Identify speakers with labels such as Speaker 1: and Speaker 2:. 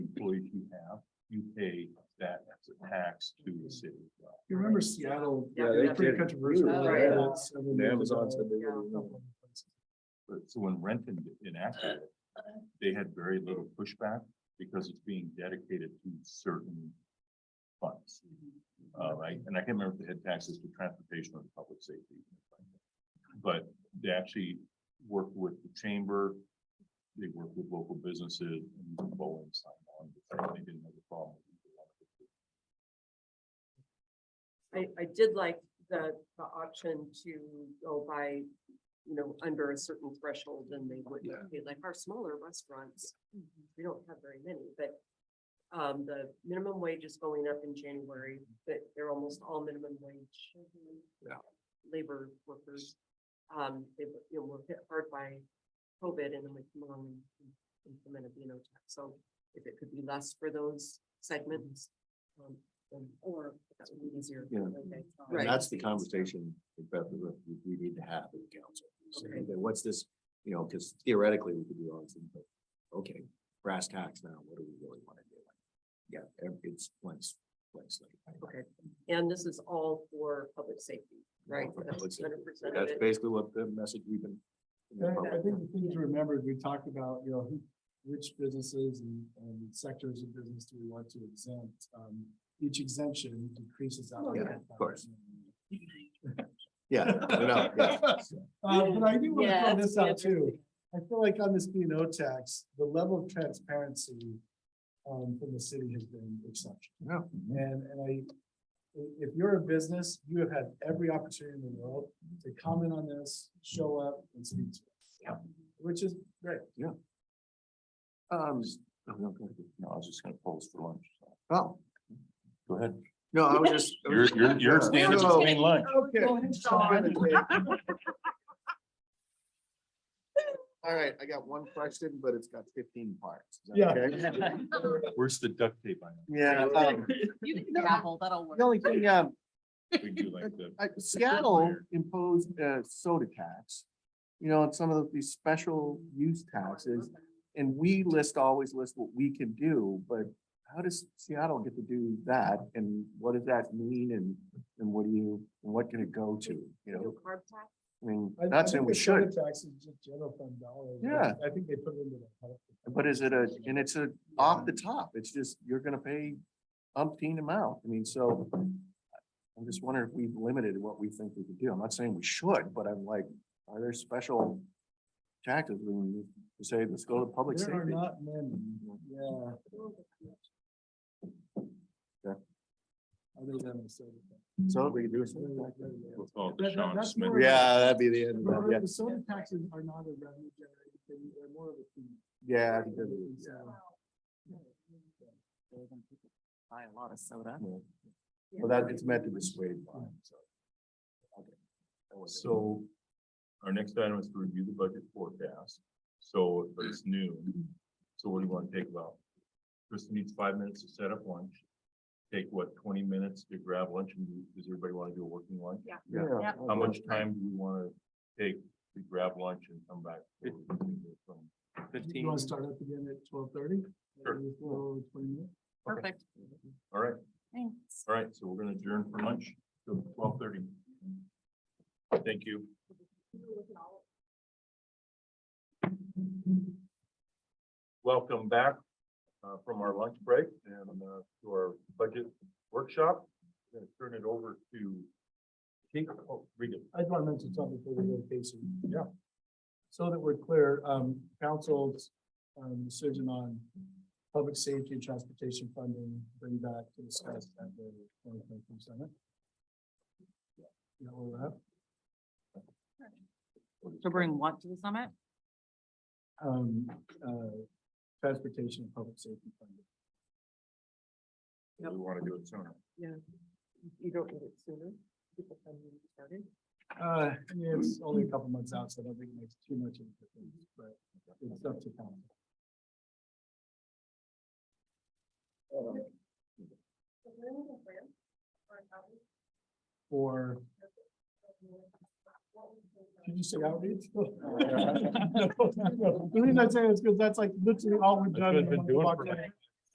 Speaker 1: employees you have, you pay that as a tax to the city. as well.
Speaker 2: You remember Seattle?
Speaker 3: Yeah,
Speaker 2: it
Speaker 3: they
Speaker 2: was pretty
Speaker 1: did.
Speaker 2: controversial.
Speaker 3: Oh,
Speaker 2: They
Speaker 3: yeah.
Speaker 2: had several
Speaker 1: The
Speaker 2: years
Speaker 1: Amazons
Speaker 2: ago.
Speaker 1: did it.
Speaker 3: Mm-hmm.
Speaker 1: But so when Renton enacted it, they had very little pushback because it's being dedicated to certain funds. Uh, right, and I can't remember if they had taxes for transportation or public safety. But they actually worked with the chamber, they worked with local businesses, and even Boeing signed on, but they didn't have a problem.
Speaker 3: I, I did like the, the option to go by, you know, under a certain threshold and they wouldn't
Speaker 2: Yeah.
Speaker 3: pay, like our smaller restaurants. We don't have very many, but, um, the minimum wage is going up in January, but they're almost all minimum wage.
Speaker 2: Yeah.
Speaker 3: Labor workers, um, they, were- you know, were hit hard by COVID and then we come along and implemented, you know, tax. So if it could be less for those segments, um, um, Or that's would be easier.
Speaker 4: Yeah.
Speaker 3: okay.
Speaker 4: And
Speaker 3: Right.
Speaker 4: that's the conversation that we, we need to have with council. So,
Speaker 3: Okay.
Speaker 4: okay, What's this, you know, because theoretically we could do all these things, but, okay, brass tacks now, what do we really want to do? Yeah, ev- it's place, place.
Speaker 3: Okay. And this is all for public safety, right?
Speaker 4: For
Speaker 3: That's
Speaker 4: public safety.
Speaker 3: 100% of
Speaker 4: That's
Speaker 3: it.
Speaker 4: basically what the message we've been.
Speaker 2: Yeah, I think the thing to remember, is we talked about, you know, who- which businesses and, and sectors of business do we want to exempt? Um, each exemption decreases.
Speaker 3: Oh,
Speaker 4: yeah,
Speaker 2: output.
Speaker 4: of course. Yeah, no, no, yeah.
Speaker 2: Uh, but I do want to
Speaker 3: Yeah,
Speaker 2: throw
Speaker 3: that's
Speaker 2: this out
Speaker 3: interesting.
Speaker 2: too. I feel like on this B and O tax, the level of transparency um, from the city has been exceptional.
Speaker 4: Yeah.
Speaker 2: And, and I, i- if you're a business, you have had every opportunity in the world to comment on this, show up and speak to us.
Speaker 4: Yeah.
Speaker 2: Which is great.
Speaker 4: Um,
Speaker 1: No, I was just gonna pause for lunch, so,
Speaker 4: oh,
Speaker 1: go ahead.
Speaker 4: no, I was just. I
Speaker 1: Your,
Speaker 4: was-
Speaker 1: your, your standards
Speaker 4: So-
Speaker 1: between lunch.
Speaker 2: Okay.
Speaker 4: All right, I got one question, but it's got fifteen parts. Is that
Speaker 2: Yeah.
Speaker 4: okay?
Speaker 1: Where's the duct tape on it?
Speaker 4: Yeah. um,
Speaker 5: You can
Speaker 4: No.
Speaker 5: gavel, that'll work.
Speaker 4: The only thing, um,
Speaker 1: We do like the.
Speaker 4: Uh, Seattle imposed a soda tax, you know, and some of these special use taxes. And we list, always list what we can do, but how does Seattle get to do that? And what does that mean? And, and what do you, and what can it go to, you know?
Speaker 3: No carb tax?
Speaker 4: I mean,
Speaker 2: I- I
Speaker 4: not saying
Speaker 2: think
Speaker 4: we
Speaker 2: the soda
Speaker 4: should,
Speaker 2: Tax is just general fund dollars.
Speaker 4: Yeah.
Speaker 2: I think they put it into the. health.
Speaker 4: but is it a, and it's a, off the top, it's just, you're gonna pay umpteen amount. I mean, so I'm just wondering if we've limited what we think we could do. I'm not saying we should, but I'm like, are there special tactics when you say, let's go to public
Speaker 2: There are
Speaker 4: safety?
Speaker 2: not many, yeah.
Speaker 4: Yeah.
Speaker 2: Other than the soda tax.
Speaker 4: So we can do
Speaker 2: Soda
Speaker 4: something.
Speaker 2: tax, yeah.
Speaker 1: We'll call it
Speaker 2: That-
Speaker 1: the
Speaker 2: that-
Speaker 1: Sean
Speaker 2: that's
Speaker 1: Smith.
Speaker 2: more of a-
Speaker 4: Yeah, that'd be the end. of it,
Speaker 2: But The soda taxes are not a revenue generating thing, they're more of a fee.
Speaker 4: Yeah. Yeah. I think that
Speaker 2: And
Speaker 4: is,
Speaker 2: so-
Speaker 5: They're gonna Buy a lot of soda.
Speaker 4: yeah. Well, that, it's meant to dissuade buying, so. Okay. That was it.
Speaker 1: So our next item is to review the budget forecast. So but it's noon. So what do you want to take about? Kristen needs five minutes to set up lunch. Take what, twenty minutes to grab lunch? And do- Does everybody want to do a working lunch?
Speaker 3: Yeah.
Speaker 4: Yeah.
Speaker 5: Yep.
Speaker 1: How much time do we want to take to grab lunch and come back?
Speaker 2: You
Speaker 1: Fifteen.
Speaker 2: wanna start up again at twelve thirty?
Speaker 1: Sure.
Speaker 5: Perfect.
Speaker 1: All right,
Speaker 5: Thanks.
Speaker 1: all right. So we're going to adjourn for lunch till twelve thirty. Thank you. Welcome back uh, from our lunch break and uh, to our budget workshop. I'm going to turn it over to Kate Oh, Regan.
Speaker 2: I just want to mention something before we go to Casey.
Speaker 1: Yeah.
Speaker 2: So that we're clear, um, council's, um, decision on public safety and transportation funding, bring back to discuss at the twenty twenty-three summit. You know, all that,
Speaker 5: So bring what to the summit?
Speaker 2: um, uh, transportation and public safety funding.
Speaker 1: We want to do it sooner.
Speaker 3: You don't need it sooner. People can be started.
Speaker 2: Uh, I mean, it's only a couple months out, so I don't think it makes too much of a difference, but it's up to council. For. Did you say outreach? No, no, The reason I say it is because that's like literally all we've
Speaker 1: That's
Speaker 2: done.
Speaker 1: what
Speaker 2: in
Speaker 1: I've been
Speaker 2: the month
Speaker 1: doing
Speaker 2: of
Speaker 1: for
Speaker 2: October.